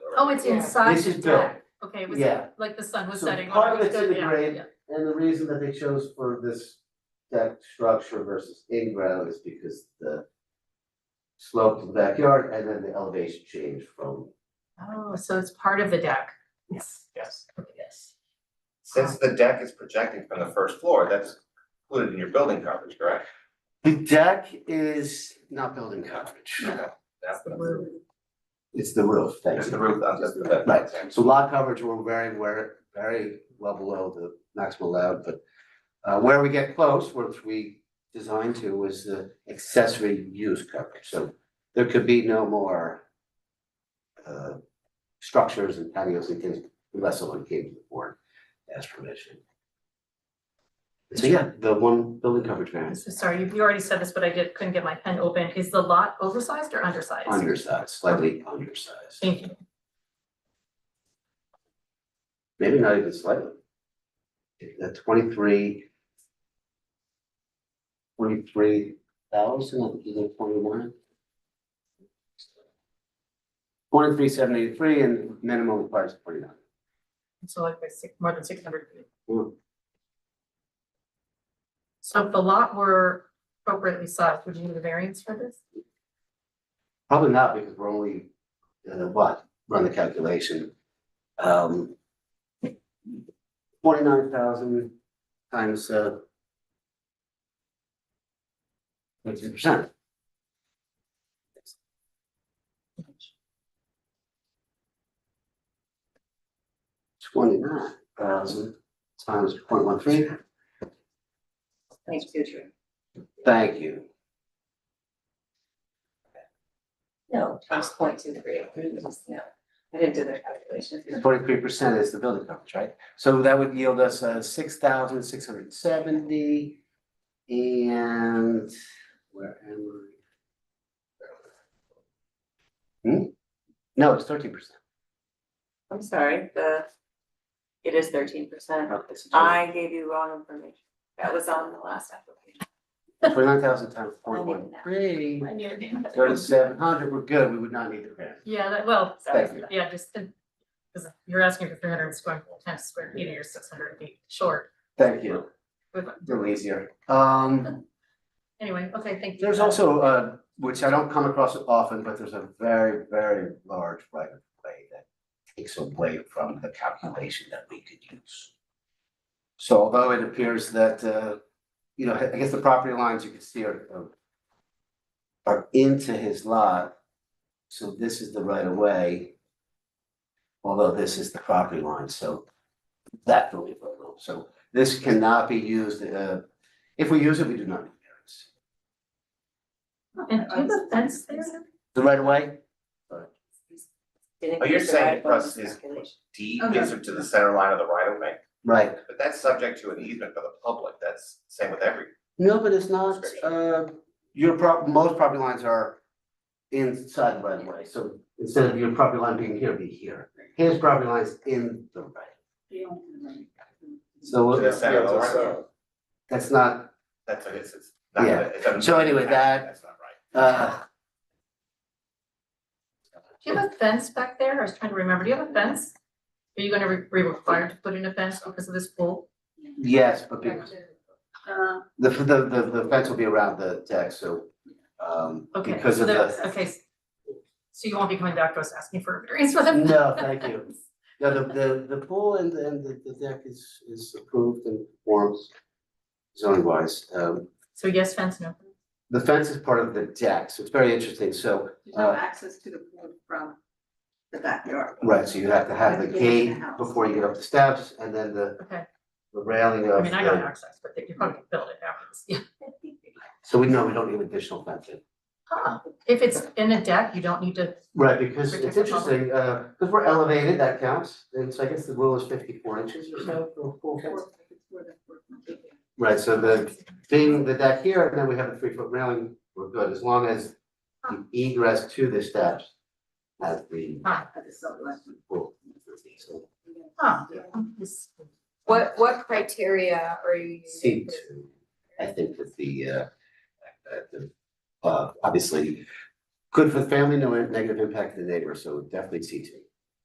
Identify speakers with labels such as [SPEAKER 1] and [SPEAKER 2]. [SPEAKER 1] Oh, it's
[SPEAKER 2] Yeah.
[SPEAKER 1] inside
[SPEAKER 3] This
[SPEAKER 1] the
[SPEAKER 3] is built.
[SPEAKER 1] deck, okay, it was
[SPEAKER 3] Yeah.
[SPEAKER 1] like the sun was
[SPEAKER 3] So
[SPEAKER 1] setting. on
[SPEAKER 3] part of
[SPEAKER 1] it.
[SPEAKER 3] it's in the
[SPEAKER 1] Yeah,
[SPEAKER 3] grade.
[SPEAKER 1] yeah.
[SPEAKER 3] And the reason that they chose for this deck structure versus in-ground is because the slope of the backyard and then the elevation change from.
[SPEAKER 1] Oh, so it's part of the deck. Yes.
[SPEAKER 4] Yes,
[SPEAKER 1] Yes.
[SPEAKER 4] since the deck is projecting from the first floor, that's included in your building coverage, correct?
[SPEAKER 3] The deck is not building coverage.
[SPEAKER 4] That's the,
[SPEAKER 3] It's the roof, thank
[SPEAKER 4] that's the
[SPEAKER 3] you.
[SPEAKER 4] roof, that's the deck.
[SPEAKER 3] Right, so lot coverage, we're very, we're very well below the maximum allowed, but uh, where we get close, which we designed to, was the accessory use coverage, so there could be no more uh, structures and patios and things unless someone came to the board as permission. So yeah, the one building coverage
[SPEAKER 1] I'm
[SPEAKER 3] variance,
[SPEAKER 1] so sorry, you, you already said this, but I did, couldn't get my pen open. Is the lot oversized or undersized?
[SPEAKER 3] undersized, slightly undersized,
[SPEAKER 1] Thank you.
[SPEAKER 3] maybe not even slightly. The twenty-three. Twenty-three thousand, I think you did twenty-one. Twenty-three seventy-three and minimum requires forty-nine.
[SPEAKER 1] So like by six, more than six hundred feet.
[SPEAKER 3] Mm.
[SPEAKER 1] So if the lot were appropriately sized, would you need a variance for this?
[SPEAKER 3] Probably not because we're only, uh, what, run the calculation. Um. Forty-nine thousand times, uh. Fifty percent. Twenty-nine thousand times point one three,
[SPEAKER 5] Thanks, future.
[SPEAKER 3] thank you.
[SPEAKER 5] No, times point two three, no, I didn't do the calculation.
[SPEAKER 3] Forty-three percent is the building coverage, right? So that would yield us uh six thousand six hundred seventy. And where am I? Hmm? No, it's thirteen percent.
[SPEAKER 5] I'm sorry, the, it is thirteen percent.
[SPEAKER 4] Oh,
[SPEAKER 3] Okay, so
[SPEAKER 5] I gave you wrong information. That was on the last application.
[SPEAKER 3] twenty-nine thousand times point one three,
[SPEAKER 5] I knew it.
[SPEAKER 3] thirty-seven hundred, we're good, we would not need the grant.
[SPEAKER 1] Yeah, that, well,
[SPEAKER 3] Thank you.
[SPEAKER 1] yeah, just, because you're asking for three hundred square, times square feet, and you're six hundred feet short.
[SPEAKER 3] Thank you,
[SPEAKER 1] With-
[SPEAKER 3] a little easier. Um.
[SPEAKER 1] Anyway, okay, thank you.
[SPEAKER 3] There's also, uh, which I don't come across often, but there's a very, very large right of way that takes away from the calculation that we could use. So although it appears that, uh, you know, I guess the property lines you can see are are- are into his lot. So this is the right of way. Although this is the property line, so that will be voidable. So this cannot be used, uh, if we use it, we do not need variance.
[SPEAKER 1] And do you have a fence there?
[SPEAKER 3] The right of way?
[SPEAKER 4] Oh, you're saying across his D gives it to the center line of the right of way,
[SPEAKER 3] Right.
[SPEAKER 4] but that's subject to an easement for the public, that's same with every.
[SPEAKER 3] No, but it's not, uh, your prop, most property lines are inside the right of way, so instead of your property line being here, be here. His property line's in the right. So.
[SPEAKER 4] To the center of the right of way.
[SPEAKER 3] That's not,
[SPEAKER 4] That's what it is, it's not,
[SPEAKER 3] Yeah.
[SPEAKER 4] it's a.
[SPEAKER 3] So anyway, that-
[SPEAKER 4] That's not right.
[SPEAKER 3] uh,
[SPEAKER 1] Do you have a fence back there? I was trying to remember. Do you have a fence? Are you gonna re- be required to put in a fence because of this pool?
[SPEAKER 3] yes, but be-
[SPEAKER 6] Uh,
[SPEAKER 3] the, the, the, the fence will be around the deck, so, um,
[SPEAKER 1] Okay.
[SPEAKER 3] because
[SPEAKER 1] so
[SPEAKER 3] of
[SPEAKER 1] there-
[SPEAKER 3] the.
[SPEAKER 1] Okay. s- So you won't be coming back to us asking for a variance for them?
[SPEAKER 3] No, thank you. No, the, the, the pool and, the- and the, the deck is, is approved and forms zoning wise, um,
[SPEAKER 1] So yes, fence, no.
[SPEAKER 3] the fence is part of the deck, so it's very interesting, so.
[SPEAKER 4] Oh.
[SPEAKER 3] uh,
[SPEAKER 6] access to the pool from the backyard.
[SPEAKER 3] Right, so you have to have the
[SPEAKER 6] Right, yeah,
[SPEAKER 3] gate
[SPEAKER 6] the house.
[SPEAKER 3] before you get up the steps and then the,
[SPEAKER 1] Okay.
[SPEAKER 3] the railing
[SPEAKER 1] I
[SPEAKER 3] of
[SPEAKER 1] mean, I got
[SPEAKER 3] the,
[SPEAKER 1] access, but you probably could build it afterwards. Yeah.
[SPEAKER 3] so we know we don't need additional fencing.
[SPEAKER 1] Huh. If it's in a deck, you don't need to,
[SPEAKER 3] Right, because it's
[SPEAKER 1] Protect the public.
[SPEAKER 3] interesting, uh, because we're elevated, that counts, and so I guess the rule is fifty-four inches or so for a full fence. Right, so the, being the deck here, and then we have the three-foot railing, we're good, as long as the egress to the steps has the pool. So
[SPEAKER 1] huh?
[SPEAKER 7] What, what criteria are you
[SPEAKER 3] C
[SPEAKER 7] using?
[SPEAKER 3] two, I think that the uh, uh, the, uh, obviously, good for the family, no negative impact to the neighbor, so definitely C two.